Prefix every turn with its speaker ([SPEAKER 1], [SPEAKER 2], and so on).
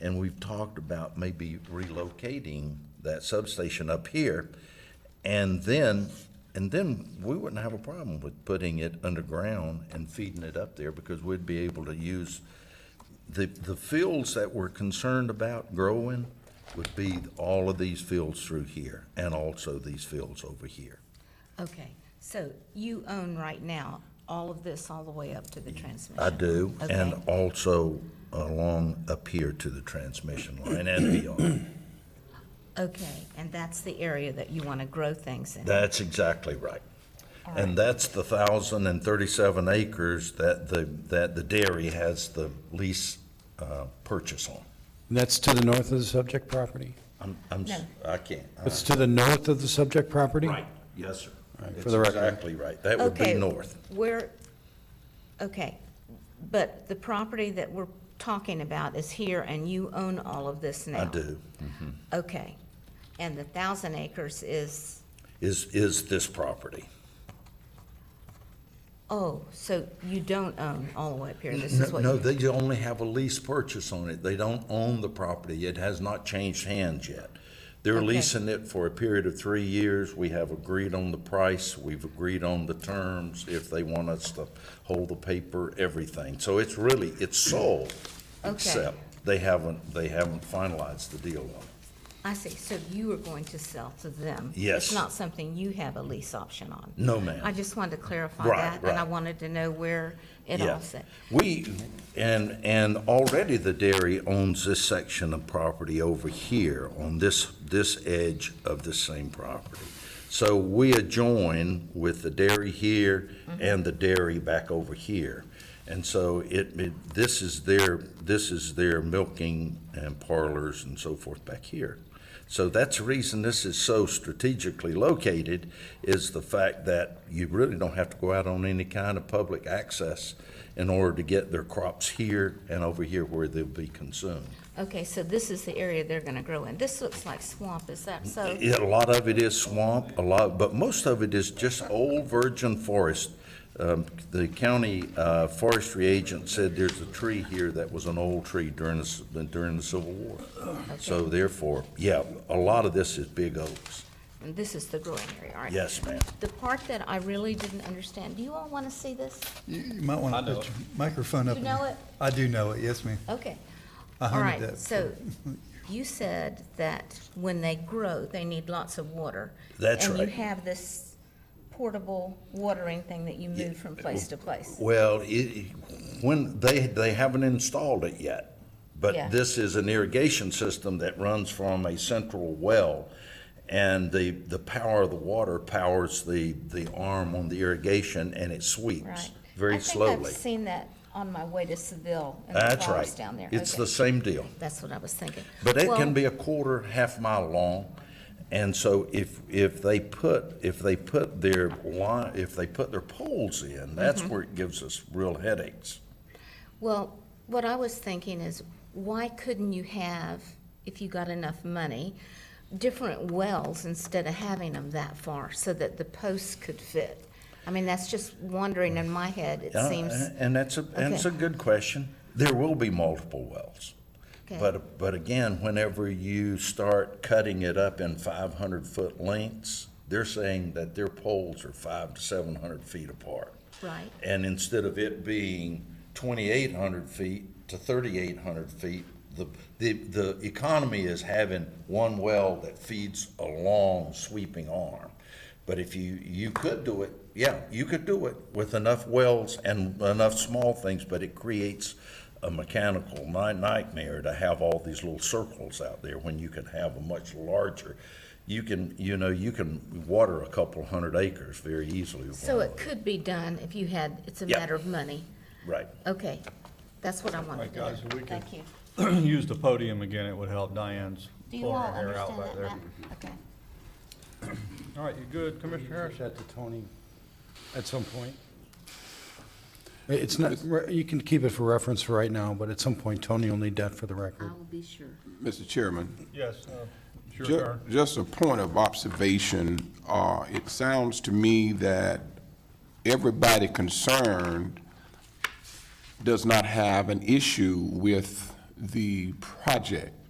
[SPEAKER 1] And we've talked about maybe relocating that substation up here. And then, and then we wouldn't have a problem with putting it underground and feeding it up there because we'd be able to use the, the fields that we're concerned about growing would be all of these fields through here and also these fields over here.
[SPEAKER 2] Okay, so you own right now all of this all the way up to the transmission?
[SPEAKER 1] I do, and
[SPEAKER 2] Okay.
[SPEAKER 1] also along up here to the transmission line and beyond.
[SPEAKER 2] Okay, and that's the area that you want to grow things in?
[SPEAKER 1] That's exactly right. And that's the thousand and thirty-seven acres that the, that the dairy has the lease, uh, purchase on.
[SPEAKER 3] And that's to the north of the subject property?
[SPEAKER 1] I'm, I'm, s- I can't. I-
[SPEAKER 3] It's to the north of the subject property?
[SPEAKER 1] Yes, sir.
[SPEAKER 3] Right, for
[SPEAKER 1] It's
[SPEAKER 3] the record.
[SPEAKER 1] exactly right. That would be
[SPEAKER 2] Okay,
[SPEAKER 1] north.
[SPEAKER 2] Where, okay, but the property that we're talking about is here, and you own all of this now?
[SPEAKER 1] I do.
[SPEAKER 2] Okay, and the thousand acres is,
[SPEAKER 1] Is, is this property?
[SPEAKER 2] oh, so you don't own all the way up here, this is what?
[SPEAKER 1] No,
[SPEAKER 2] you-
[SPEAKER 1] they only have a lease purchase on it. They don't own the property. It has not changed hands yet. They're
[SPEAKER 2] Okay.
[SPEAKER 1] leasing it for a period of three years. We have agreed on the price. We've agreed on the terms, if they want us to hold the paper, everything. So it's really, it's sold,
[SPEAKER 2] Okay.
[SPEAKER 1] except they haven't, they haven't finalized the deal on it.
[SPEAKER 2] I see, so you are going to sell to them?
[SPEAKER 1] Yes.
[SPEAKER 2] It's not something you have a lease option on?
[SPEAKER 1] No, ma'am.
[SPEAKER 2] I just wanted to clarify
[SPEAKER 1] Right,
[SPEAKER 2] that, and I
[SPEAKER 1] right.
[SPEAKER 2] wanted to know where it all
[SPEAKER 1] Yeah.
[SPEAKER 2] sat.
[SPEAKER 1] We, and, and already the dairy owns this section of property over here on this, this edge of this same property. So we adjoin with the dairy here and the dairy back over here. And so it, it, this is their, this is their milking and parlors and so forth back here. So that's the reason this is so strategically located, is the fact that you really don't have to go out on any kind of public access in order to get their crops here and over here where they'll be consumed.
[SPEAKER 2] Okay, so this is the area they're gonna grow in. This looks like swamp, is that so?
[SPEAKER 1] Yeah, a lot of Mm, it is swamp, a lot, but most of it is just old virgin forest. Um, The county uh, forestry agent said there's a tree here that was an old tree during the, c- during the Civil War. So therefore, yeah, a lot of this is big oaks.
[SPEAKER 2] And this is the growing area, all right?
[SPEAKER 1] Yes, ma'am.
[SPEAKER 2] The part that I really didn't understand, do you all wanna see this?
[SPEAKER 4] You you might want to put your microphone up.
[SPEAKER 2] You know
[SPEAKER 4] and-
[SPEAKER 2] it?
[SPEAKER 4] I do know it, yes, ma'am.
[SPEAKER 2] Okay.
[SPEAKER 4] I
[SPEAKER 2] All
[SPEAKER 4] hunted
[SPEAKER 2] right,
[SPEAKER 4] that
[SPEAKER 2] so you said that when they grow, they need lots of water.
[SPEAKER 1] That's
[SPEAKER 2] And
[SPEAKER 1] right.
[SPEAKER 2] you have this portable watering thing that you move from place to place.
[SPEAKER 1] Well, it, when, they, they haven't installed it yet,
[SPEAKER 2] Yeah.
[SPEAKER 1] but this is an irrigation system that runs from a central well, and the, the power of the water powers the, the arm on the irrigation, and it sweeps
[SPEAKER 2] Right.
[SPEAKER 1] very
[SPEAKER 2] I think
[SPEAKER 1] slowly.
[SPEAKER 2] I've seen that on my way to Seville and the
[SPEAKER 1] That's right.
[SPEAKER 2] flowers down there.
[SPEAKER 1] It's
[SPEAKER 2] Okay.
[SPEAKER 1] the same deal.
[SPEAKER 2] That's what I was thinking.
[SPEAKER 1] But it
[SPEAKER 2] Well,
[SPEAKER 1] can be a quarter, half mile long. And so if, if they put, if they put their line, if they put their poles in, that's
[SPEAKER 2] Mm-hmm.
[SPEAKER 1] where it gives us real headaches.
[SPEAKER 2] Well, what I was thinking is, why couldn't you have, if you got enough money, different wells instead of having them that far so that the posts could fit? I mean, that's just wandering in my head, it
[SPEAKER 1] Uh,
[SPEAKER 2] seems.
[SPEAKER 1] And that's a, and it's a
[SPEAKER 2] Okay.
[SPEAKER 1] good question. There will be multiple wells.
[SPEAKER 2] Okay.
[SPEAKER 1] But, but again, whenever you start cutting it up in five hundred foot lengths, they're saying that their poles are five to seven hundred feet apart.
[SPEAKER 2] Right.
[SPEAKER 1] And instead of it being twenty-eight hundred feet to thirty-eight hundred feet, the, the, the economy is having one well that feeds a long sweeping arm. But if you, you could do it, yeah, you could do it with enough wells and enough small things, but it creates a mechanical ni- nightmare to have all these little circles out there when you could have a much larger. You can, you know, you can water a couple hundred acres very easily. with
[SPEAKER 2] So
[SPEAKER 1] one
[SPEAKER 2] it could be done if you had, it's a
[SPEAKER 1] Yeah.
[SPEAKER 2] matter of money.
[SPEAKER 1] Right.
[SPEAKER 2] Okay, that's what I wanted
[SPEAKER 5] right,
[SPEAKER 2] to know.
[SPEAKER 5] guys, if we could-
[SPEAKER 2] Thank you.
[SPEAKER 5] use the podium again, it would help Diane's
[SPEAKER 2] Do you all
[SPEAKER 5] flowing hair out
[SPEAKER 2] understand
[SPEAKER 5] back
[SPEAKER 2] that,
[SPEAKER 5] there.
[SPEAKER 2] Matt? Okay.
[SPEAKER 5] All right, you good, Commissioner Harris?
[SPEAKER 3] That to Tony at some point. It's not, you can keep it for reference for right now, but at some point, Tony will need that for the record.
[SPEAKER 2] be sure.
[SPEAKER 6] Mr. Chairman,
[SPEAKER 5] Yes, uh, it's your
[SPEAKER 6] ju-
[SPEAKER 5] turn.
[SPEAKER 6] just a point of observation, uh, it sounds to me that everybody concerned does not have an issue with the project